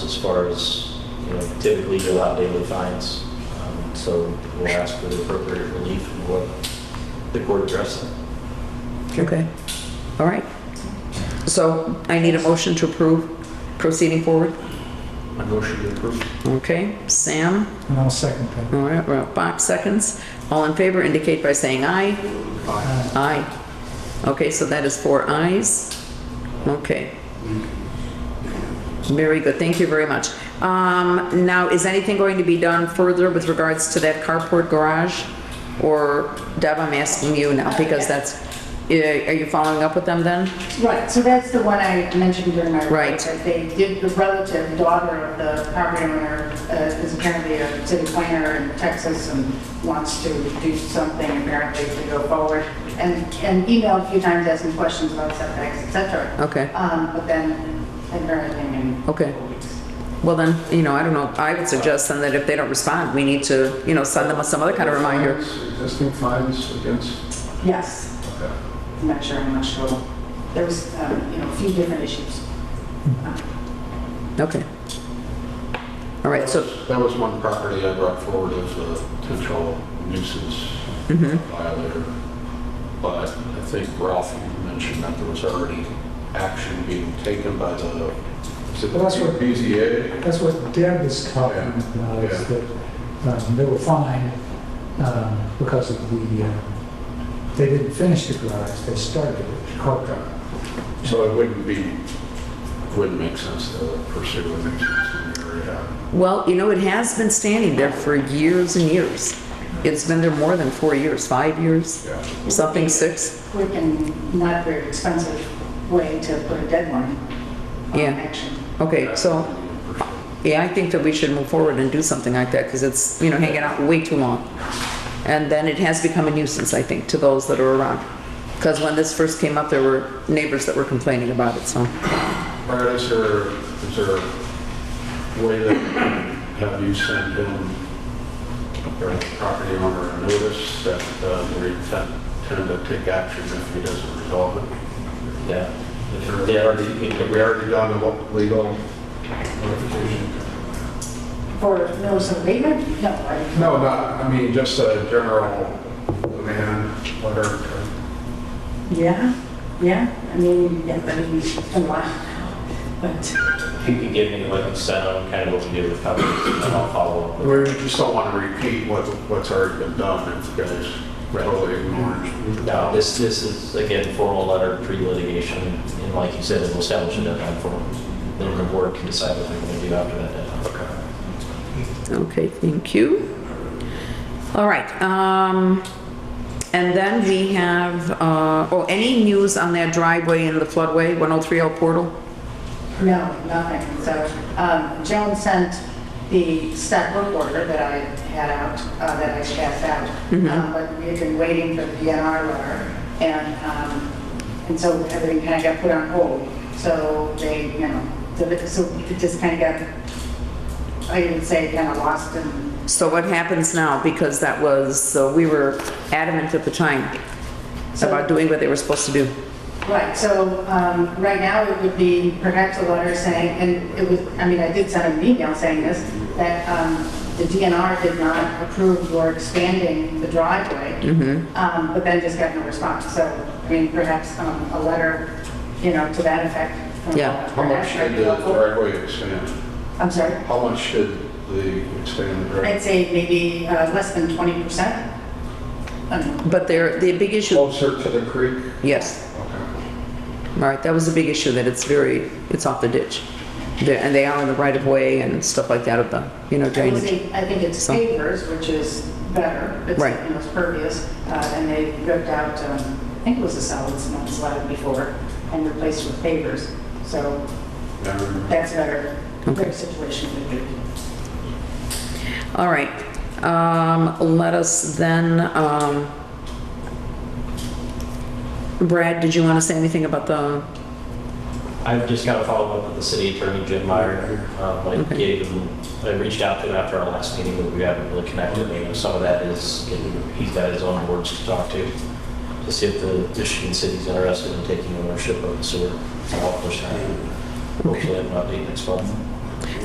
far as, you know, typically you're allowed daily fines. Um, So we'll ask for the appropriate relief and what the court addresses. Okay, all right. So I need a motion to approve proceeding forward. My motion to approve. Okay, Sam, And I'll second that. all right, well, Bob seconds. All in favor indicate by saying aye. Aye. Okay, so that is four ayes. Okay. Very good, thank you very much. Um, now, is anything going to be done further with regards to that carport garage? Or, Deb, I'm asking you now, because that's, eh, are you following up with them then? Right, so that's the one I mentioned during my report. Right. That they did, the relative daughter of the property owner uh, is apparently a city planner in Texas and wants to do something apparently to go forward. And, and emailed a few times asking questions about setbacks, et cetera. Okay. Um, but then, I've heard anything in. Okay. Well then, you know, I don't know, I would suggest then that if they don't respond, we need to, you know, send them some other kind of reminder. Existing fines against, Yes, okay. I'm not sure, I'm not sure. There was, um, you know, a few different issues. Okay. All right, so, That was one property I brought forward as a potential nuisance Mm-hmm. violator. But I think Ralph mentioned that there was already action being taken by the, is it Well, that's what- BZA? That's what Deb was talking Yeah, about, is yeah. that um, they were fined um, because of the, uh, they didn't finish the garage, they started it, carpet. So it wouldn't be, wouldn't make sense to pursue a nuisance in the area. well, you know, it has been standing there for years and years. It's been there more than four years, five years, Yeah. something six. Quick and not very expensive way to put a deadline on Yeah. action. Okay, so, yeah, I think that we should move forward and do something like that because it's, you know, hanging out way too long. And then it has become a nuisance, I think, to those that are around. Because when this first came up, there were neighbors that were complaining about it, so. Brad, is there, is there a way that we can have you send in your property owner a notice that uh, we intend, intend to take action if he doesn't resolve it? Yeah. If Or they already- Have we already done a legal notification? For notice of abatement? No, I- No, not, I mean, just a general demand letter. yeah, yeah, I mean, yeah, I mean, a lot. But, If you could give me like a set on kind of what we do with covenants, and then I'll follow up with. We just don't want to repeat what, what's already been done if you guys totally ignored. No, this, this is, again, formal letter pre-litigation, and like you said, it will establish a deadline for them. Then the board can decide what they're going to do after that deadline. Okay. Okay, thank you. All right, um, and then we have, uh, oh, any news on that driveway in the floodway, 103L portal? no, nothing. So, um, Joan sent the staff work order that I had out, uh, that I passed out. Um, But we had been waiting for the DNR letter, and, um, and so everything kind of got put on hold. So they, you know, so it- so it just kind of got, I would say, kind of lost in So what happens now, because that was, so we were adamant at the time about doing what they were supposed to do. Right, so, um, right now it would be perhaps a letter saying, and it was, I mean, I did send an email saying this, that, um, the DNR did not approve your expanding the driveway. Um, but then just got no response, so, I mean, perhaps, um, a letter, you know, to that effect. from- Yeah. How much should the driveway expand? I'm sorry, How much should the expand the I'd driveway? say maybe, uh, less than twenty percent. But there, the big issue, Closer to the creek? yes, Okay. all right, that was the big issue, that it's very, it's off the ditch. There- And they are in the right of way and stuff like that of the, you know, I would drainage. say- I think it's So- pavers, which is better. It's, Right. you know, It's pervious, uh, and they ripped out, um, I think it was a solid cement slab before, and replaced with pavers. So Um, that's better, Okay. better situation would be. All right, um, let us then, um, Brad, did you want to say anything about the, I've just got to follow up with the city attorney, Jim Meyer. Um, I Okay. gave him, I reached out to him after our last meeting, but we haven't really connected. You know, some of that is, he's got his own boards to talk to, to see if the Michigan city's interested in taking ownership of the sewer. So I'll push that. Hopefully I have an update next month.